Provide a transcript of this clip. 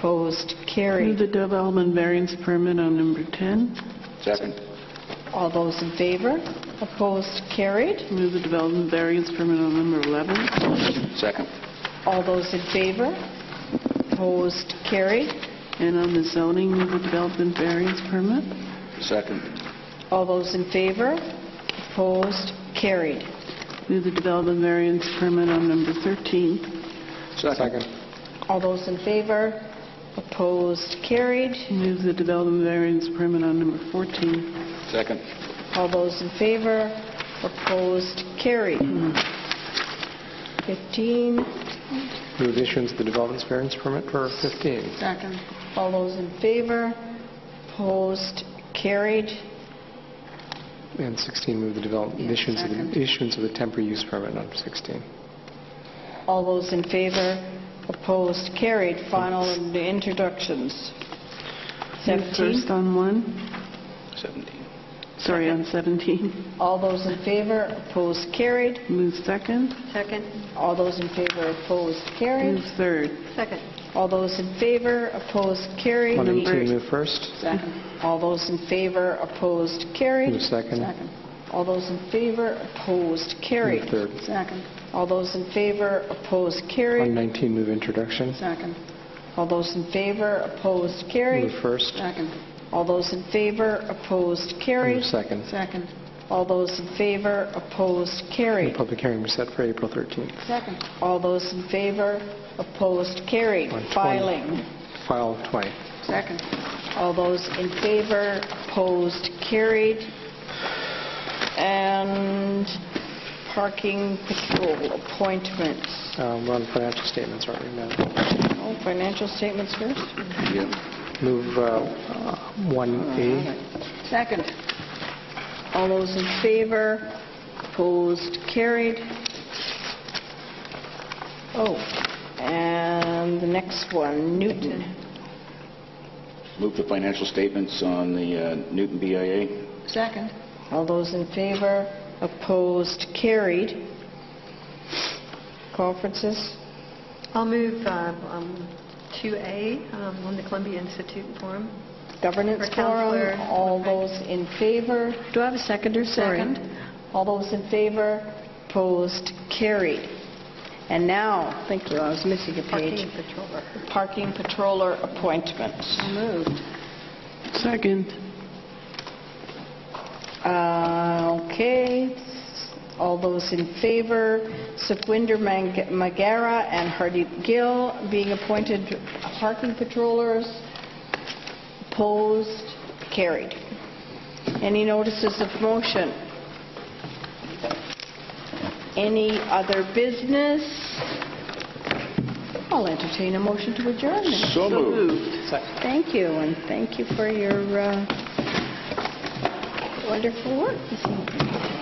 Opposed? Move Carried. the development variance permit on number 10. Second. All those in favor? Opposed? Carried. Move the development variance permit on number 11. Second. All those in favor? Opposed? Carried. And on the zoning, move the development variance permit. Second. All those in favor? Opposed? Carried. Move the development variance permit on number 13. Second. All those in favor? Opposed? Carried. Move the development variance permit on number 14. Second. All those in favor? Opposed? Carried. 15. Move issuance of the development variance permit for 15. Second. All those in favor? Opposed? Carried. And 16, move the development, issuance of the, issuance of the temporary use permit on 16. All those in favor? Opposed? Carried. Final and introductions. First 17. on 1, 17. sorry, on 17. All those in favor? Opposed? Carried. Move second. Second. All those in favor, opposed, Move carried. third. Second. All those in favor, opposed, carried. On 18, Number- move first. All those in favor, opposed, carried. Move second. All those in favor, opposed, Move carried. third. Second. All those in favor, opposed, On carried. 19, move introduction. Second. All those in favor, opposed, Move carried. first. Second. All those in favor, opposed, Move carried. second. Second. All those in favor, opposed, The carried. public hearing was set for April 13th. Second. All those in favor, opposed, carried. On 20. Filing. File 20. Second. All those in favor, opposed, carried. And parking patrol appointments. Um, We're on financial statements right now. Oh, Financial statements first? Yeah. Move uh, uh, 1A. Second. All those in favor, opposed, carried. Oh, and the next one, Newton. Move the financial statements on the uh, Newton BIA. Second. All those in favor, opposed, carried. Conferences? I'll move um, um, 2A um, on the Columbia Institute Forum. Governance For Counselor. Forum, all those in favor? Do I have a second or All those in favor, opposed, carried. And now, thank you, I was missing a page. Parking patroller. Parking patroller appointment. Moved. Second. Uh, Okay, all those in favor, Sukwinder Mang- Magara and Hardeep Gill being appointed parking patrollers, opposed, carried. Any notices of motion? Any other business? I'll entertain a motion to adjourn. then. So moved. Thank you, and thank you for your uh, wonderful work this evening.